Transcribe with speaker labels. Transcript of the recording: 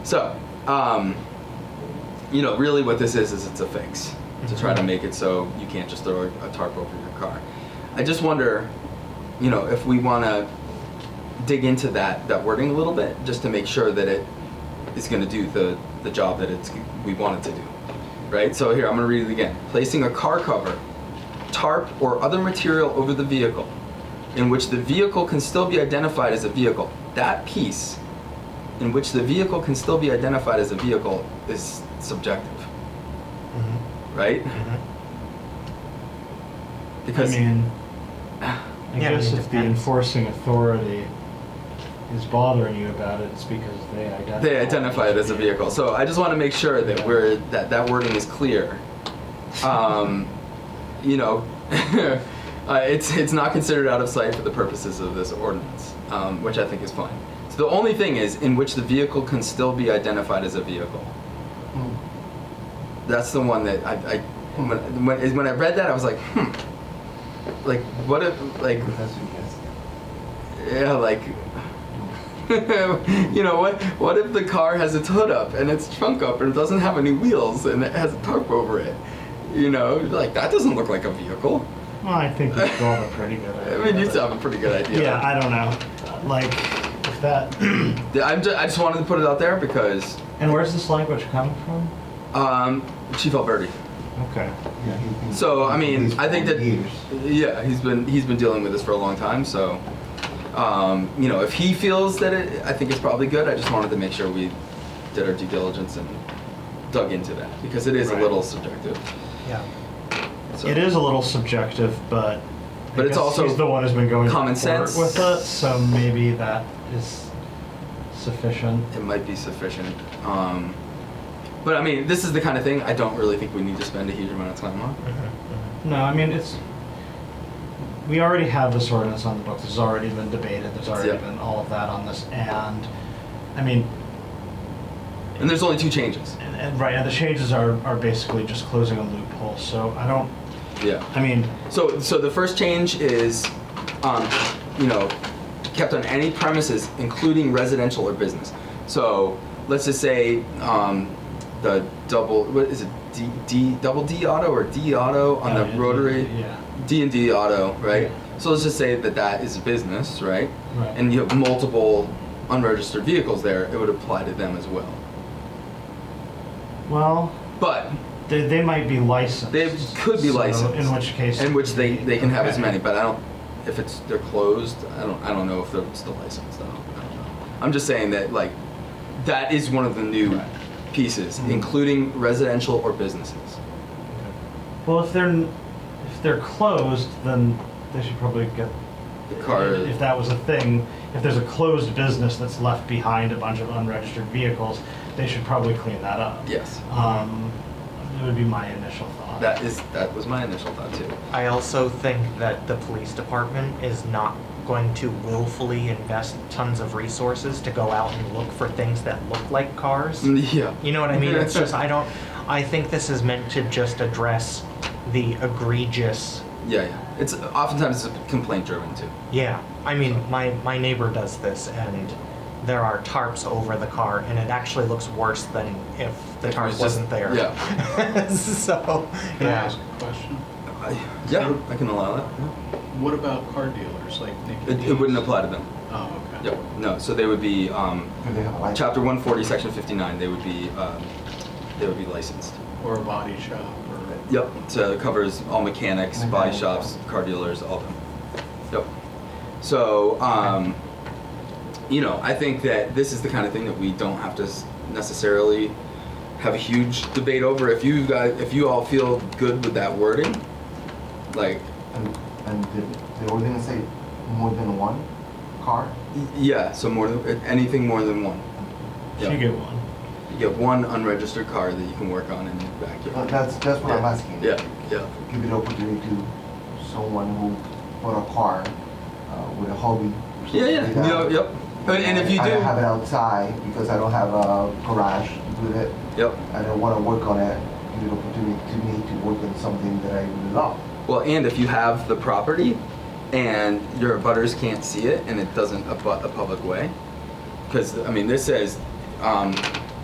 Speaker 1: So, um, you know, really what this is is it's a fix to try to
Speaker 2: Mhm.
Speaker 1: make it so you can't just throw a, a tarp over your car. I just wonder, you know, if we want to dig into that that wording a little bit just to make sure that it is going to do the the job that it's we want it to do. Right? So here, I'm going to read it again. Placing a car cover, tarp or other material over the vehicle in which the vehicle can still be identified as a vehicle. That piece in which the vehicle can still be identified as a vehicle is subjective,
Speaker 2: Mm-hmm.
Speaker 1: right?
Speaker 3: I
Speaker 1: Because
Speaker 3: mean, I
Speaker 2: Yeah, I
Speaker 3: guess
Speaker 2: mean,
Speaker 3: if the
Speaker 2: depends.
Speaker 3: enforcing authority is bothering you about it, it's because they identify.
Speaker 1: they identify it as a vehicle. So I just want to make sure that we're that that wording is clear. Um, you know, uh, it's it's not considered out of sight for the purposes of this ordinance, um, which I think is fine. So the only thing is in which the vehicle can still be identified as a vehicle. That's the one that I, I when, when is- when I read that I was like, hmm, like what if like yeah like. you know what? What if the car has its hood up and its trunk up and it doesn't have any wheels and it has a tarp over it? You know, you're like that doesn't look like a vehicle.
Speaker 3: Well, I think we've got a pretty good
Speaker 1: I
Speaker 3: idea.
Speaker 1: mean, you
Speaker 3: but-
Speaker 1: have a pretty good idea.
Speaker 3: Yeah, I don't know. Like, if that.
Speaker 1: I, I'm just, I just wanted to put it out there because
Speaker 3: and where's this language coming from?
Speaker 1: um, Chief Alberti.
Speaker 3: Okay.
Speaker 1: So I mean, I think that yeah, he's been he's been dealing with this for a long time. So um, you know, if he feels that it, I think it's probably good. I just wanted to make sure we did our due diligence and dug into that because it is a
Speaker 3: Right.
Speaker 1: little subjective.
Speaker 2: Yeah.
Speaker 1: So.
Speaker 3: It is a little subjective, but. I
Speaker 1: But it's
Speaker 3: guess
Speaker 1: also
Speaker 3: he's the one who's been going to
Speaker 1: common
Speaker 3: court
Speaker 1: sense.
Speaker 3: with it, so maybe that is sufficient.
Speaker 1: it might be sufficient. Um, but I mean, this is the kind of thing I don't really think we need to spend a huge amount of time on.
Speaker 2: Mm-hmm.
Speaker 3: No, I mean, it's, we already have this ordinance on the books, it's already been debated, there's already
Speaker 1: Yeah.
Speaker 3: been all of that on this, and, I mean,
Speaker 1: And there's only two changes.
Speaker 3: and, and right, and the changes are, are basically just closing a loophole, so I don't,
Speaker 1: Yeah.
Speaker 3: I mean,
Speaker 1: So, so the first change is, um, you know, kept on any premises, including residential or business. So, let's just say um, the double, what is it, D, D, double D auto or D auto on
Speaker 3: uh,
Speaker 1: the rotary?
Speaker 3: Yeah,
Speaker 1: D and D auto, right?
Speaker 3: Yeah.
Speaker 1: So let's just say that that is a business, right?
Speaker 3: Right.
Speaker 1: And you have multiple unregistered vehicles there, it would apply to them as well.
Speaker 3: well,
Speaker 1: But
Speaker 3: they, they might be licensed.
Speaker 1: they could be
Speaker 3: so
Speaker 1: licensed,
Speaker 3: In which case.
Speaker 1: in which they, they can have as
Speaker 3: okay.
Speaker 1: many. But I don't, if it's they're closed, I don't I don't know if they're still licensed. I don't, I don't know. I'm just saying that like that is one of the new pieces,
Speaker 3: Mhm.
Speaker 1: including residential or businesses.
Speaker 3: Well, if they're, n- if they're closed, then they should probably get
Speaker 1: The car.
Speaker 3: If that was a thing, if there's a closed business that's left behind a bunch of unregistered vehicles, they should probably clean that up.
Speaker 1: yes,
Speaker 3: Um, it would be my initial thought.
Speaker 1: that is that was my initial thought too.
Speaker 2: I also think that the police department is not going to willfully invest tons of resources to go out and look for things that look like cars.
Speaker 1: Mm, Yeah.
Speaker 2: You know what I mean? It's just, I don't, I think this is meant to just address the egregious,
Speaker 1: Yeah, yeah. It's oftentimes it's complaint driven too.
Speaker 2: yeah. I mean, my, my neighbor does this and there are tarps over the car and it actually looks worse than if the
Speaker 1: If it was
Speaker 2: tarp
Speaker 1: just-
Speaker 2: wasn't there. Yeah. So,
Speaker 4: Can I
Speaker 2: yeah.
Speaker 4: ask a question?
Speaker 1: I, yeah, I can allow that. yeah.
Speaker 4: What about car dealers, like Nicky
Speaker 1: It, it wouldn't
Speaker 4: D's?
Speaker 1: apply to them.
Speaker 4: Oh, okay.
Speaker 1: Yep. No. So they would be um,
Speaker 5: Do they have a license?
Speaker 1: chapter 140, section 59. They would be um, they would be licensed.
Speaker 4: Or a body shop, or,
Speaker 1: Yep. So it covers all mechanics, body
Speaker 5: Okay.
Speaker 1: shops, car dealers, all of them. Yep. So um, you know, I think that this is the kind of thing that we don't have to s- necessarily have a huge debate over. If you guys, if you all feel good with that wording, like
Speaker 5: And, and did the ordinance say more than one car?
Speaker 1: Y- Yeah, so more than anything more than one.
Speaker 3: If you get one.
Speaker 1: You get one unregistered car that you can work on in your
Speaker 5: Oh, That-
Speaker 1: backyard.
Speaker 5: That's, that's what I'm
Speaker 1: Yeah.
Speaker 5: asking.
Speaker 1: Yeah, yeah,
Speaker 5: Give it opportunity to someone who bought a car uh, with a hobby. or
Speaker 1: yeah,
Speaker 5: something
Speaker 1: yeah.
Speaker 5: like
Speaker 1: You know,
Speaker 5: that.
Speaker 1: yep. And, and if you
Speaker 5: I don't have it
Speaker 1: do,
Speaker 5: outside because I don't have a garage with it.
Speaker 1: yep.
Speaker 5: I don't want to work on it. Give it opportunity to me to work on something that I really love.
Speaker 1: Well, and if you have the property, and your abutters can't see it, and it doesn't abut a public way, because I mean, this says um,